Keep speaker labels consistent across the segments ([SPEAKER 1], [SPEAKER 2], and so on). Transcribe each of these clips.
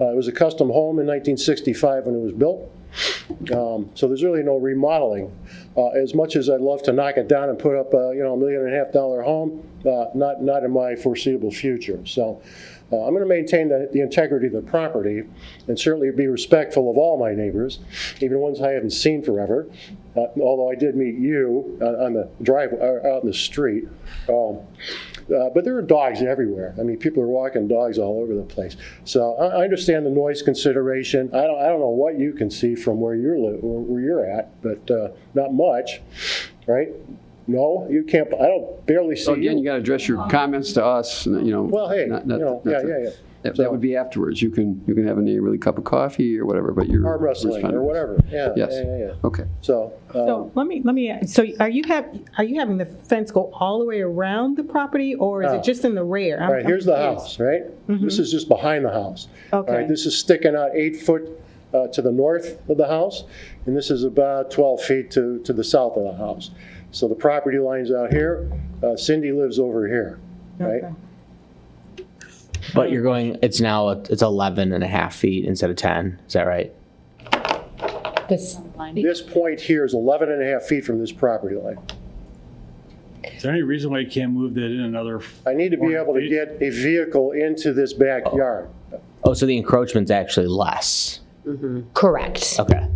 [SPEAKER 1] Uh, It was a custom home in 1965 when it was built. Um, So there's really no remodeling. Uh, As much as I'd love to knock it down and put up, a, you know, a million and a half dollar home, uh, not, not in my foreseeable future. So uh, I'm going to maintain the the integrity of the property and certainly be respectful of all my neighbors, even ones I haven't seen forever, uh, although I did meet you uh, on the drive, uh, out in the street. Um, uh, But there are dogs everywhere. I mean, people are walking dogs all over the place. So I I understand the noise consideration. I don't, I don't know what you can see from where you're, li- where where you're at, but uh, not much, right? No, you can't, I don't barely see
[SPEAKER 2] So again, Oh, you
[SPEAKER 1] you.
[SPEAKER 2] got to address your comments to us, and, you know.
[SPEAKER 1] Well, hey,
[SPEAKER 2] not-
[SPEAKER 1] you
[SPEAKER 2] not-
[SPEAKER 1] know,
[SPEAKER 2] not
[SPEAKER 1] yeah,
[SPEAKER 2] to-
[SPEAKER 1] yeah, yeah.
[SPEAKER 2] That that would be afterwards. You can, you can have a neighborly cup of coffee or whatever, but you're.
[SPEAKER 1] Arm wrestling or
[SPEAKER 2] responding.
[SPEAKER 1] whatever, yeah, yeah,
[SPEAKER 2] Yes.
[SPEAKER 1] yeah, yeah.
[SPEAKER 2] Okay.
[SPEAKER 1] So, um,
[SPEAKER 3] So let me, let me, so are you have, are you having the fence go all the way around the property or is
[SPEAKER 1] No.
[SPEAKER 3] it just in the rear?
[SPEAKER 1] all right, here's the house, right? This is just behind the house. All right,
[SPEAKER 3] Okay.
[SPEAKER 1] This is sticking out eight foot uh, to the north of the house, and this is about 12 feet to, to the south of the house. So the property line's out here, uh, Cindy lives over here, right?
[SPEAKER 4] But you're going, it's now, it's 11 and a half feet instead of 10. Is that right?
[SPEAKER 5] This,
[SPEAKER 1] This point here is 11 and a half feet from this property line.
[SPEAKER 6] Is there any reason why you can't move that in another?
[SPEAKER 1] I need to be
[SPEAKER 6] Or
[SPEAKER 1] able to
[SPEAKER 6] eight.
[SPEAKER 1] get a vehicle into this backyard.
[SPEAKER 4] Oh, so the encroachment's actually less.
[SPEAKER 5] correct.
[SPEAKER 4] Okay.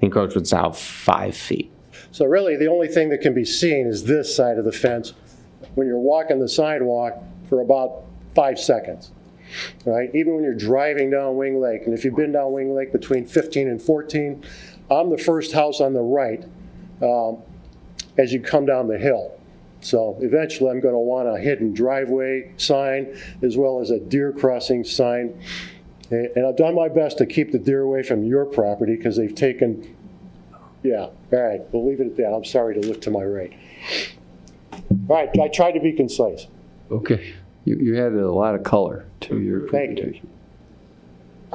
[SPEAKER 4] The encroachment's now five feet.
[SPEAKER 1] So really, the only thing that can be seen is this side of the fence when you're walking the sidewalk for about five seconds, right? Even when you're driving down Wing Lake, and if you've been down Wing Lake between 15 and 14, I'm the first house on the right um, as you come down the hill. So eventually, I'm going to want a hidden driveway sign as well as a deer crossing sign. And and I've done my best to keep the deer away from your property because they've taken yeah, all right, we'll leave it at that. I'm sorry to look to my right. All right, I tried to be concise.
[SPEAKER 2] Okay. You, you added a lot of color to your
[SPEAKER 1] Thank you.
[SPEAKER 2] presentation.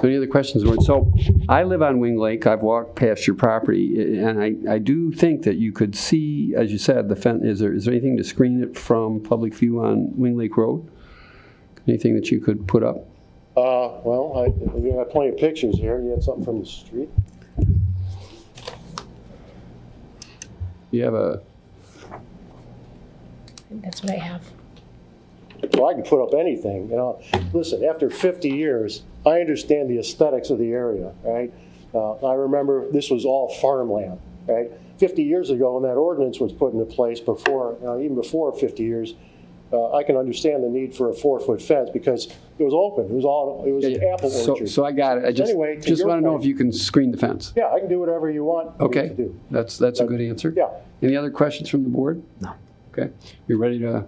[SPEAKER 2] So any other questions? Warren? So I live on Wing Lake. I've walked past your property, a- and I, I do think that you could see, as you said, the fence. Is there, is there anything to screen it from public view on Wing Lake Road? Anything that you could put up?
[SPEAKER 1] Uh, well, I, we got plenty of pictures here. You had something from the street?
[SPEAKER 2] You have a,
[SPEAKER 5] That's what I have.
[SPEAKER 1] Well, I can put up anything, you know. Listen, after 50 years, I understand the aesthetics of the area, right? Uh, I remember this was all farmland, right? 50 years ago, when that ordinance was put into place before, you know, even before 50 years, uh, I can understand the need for a four-foot fence because it was open, it was all, it was an apple
[SPEAKER 2] so,
[SPEAKER 1] orchard.
[SPEAKER 2] so I got it. I just,
[SPEAKER 1] Anyway, to
[SPEAKER 2] just
[SPEAKER 1] your
[SPEAKER 2] want to know
[SPEAKER 1] point-
[SPEAKER 2] if you can screen the fence.
[SPEAKER 1] Yeah, I can do whatever you want me to
[SPEAKER 2] Okay,
[SPEAKER 1] do.
[SPEAKER 2] that's, that's a good answer.
[SPEAKER 1] Yeah.
[SPEAKER 2] Any other questions from the board? No. Okay, you ready to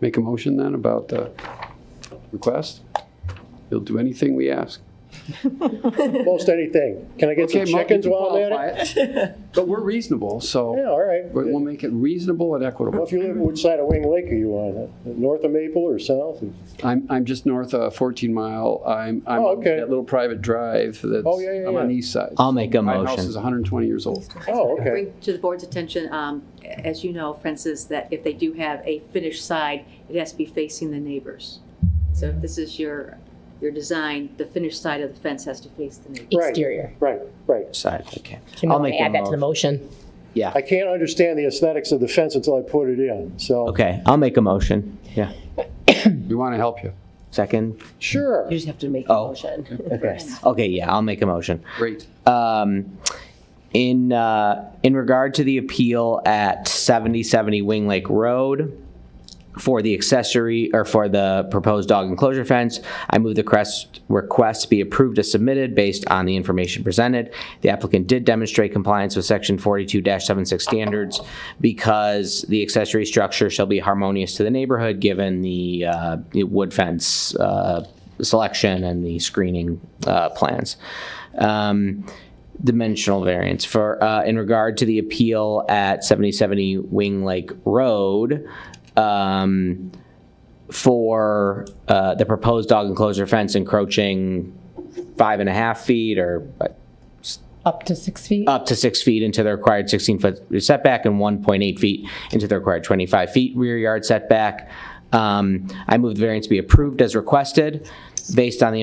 [SPEAKER 2] make a motion then about the request? You'll do anything we ask.
[SPEAKER 1] Most anything. Can I get some
[SPEAKER 2] Okay, Mo, you
[SPEAKER 1] chickens
[SPEAKER 2] can
[SPEAKER 1] while I'm
[SPEAKER 2] qualify
[SPEAKER 1] at it?
[SPEAKER 2] it. But we're reasonable,
[SPEAKER 1] Yeah,
[SPEAKER 2] so
[SPEAKER 1] all right.
[SPEAKER 2] we'll
[SPEAKER 1] Well,
[SPEAKER 2] make it reasonable and equitable.
[SPEAKER 1] if you live, which side of Wing Lake are you on? North of Maple or south?
[SPEAKER 2] I'm, I'm just north of 14 Mile. I'm, I'm
[SPEAKER 1] Oh,
[SPEAKER 2] on
[SPEAKER 1] okay.
[SPEAKER 2] that little private drive that's,
[SPEAKER 1] Oh, yeah, yeah,
[SPEAKER 2] I'm on the
[SPEAKER 1] yeah.
[SPEAKER 2] east side.
[SPEAKER 4] I'll make a
[SPEAKER 2] My house
[SPEAKER 4] motion.
[SPEAKER 2] is 120 years old.
[SPEAKER 1] Oh, okay.
[SPEAKER 7] bring to the board's attention, um, as you know, Francis, that if they do have a finished side, it has to be facing the neighbors. So if this is your, your design, the finished side of the fence has to face the neighbor.
[SPEAKER 1] Right.
[SPEAKER 5] Exterior.
[SPEAKER 1] Right, right.
[SPEAKER 4] Side, okay.
[SPEAKER 5] Can
[SPEAKER 4] I'll
[SPEAKER 5] we
[SPEAKER 4] make a
[SPEAKER 5] add that to the
[SPEAKER 4] motion.
[SPEAKER 5] motion?
[SPEAKER 4] Yeah.
[SPEAKER 1] I can't understand the aesthetics of the fence until I put it in, so.
[SPEAKER 4] Okay, I'll make a motion. Yeah.
[SPEAKER 2] We want to help you.
[SPEAKER 4] Second?
[SPEAKER 1] Sure.
[SPEAKER 5] You just have to make
[SPEAKER 4] a Oh. Okay. Okay, yeah, I'll make a motion.
[SPEAKER 2] Great.
[SPEAKER 4] um, in uh, in regard to the appeal at 7070 Wing Lake Road for the accessory or for the proposed dog enclosure fence, I move the crest request be approved as submitted based on the information presented. The applicant did demonstrate compliance with section 42-76 standards because the accessory structure shall be harmonious to the neighborhood given the uh, the wood fence uh, selection and the screening uh, plans. Um, dimensional variance for uh, in regard to the appeal at 7070 Wing Lake Road um, for uh, the proposed dog enclosure fence encroaching five and a half feet or uh,
[SPEAKER 5] Up to six feet?
[SPEAKER 4] up to six feet into the required 16-foot setback and 1.8 feet into the required 25 feet rear yard setback. Um, I move the variance be approved as requested based on the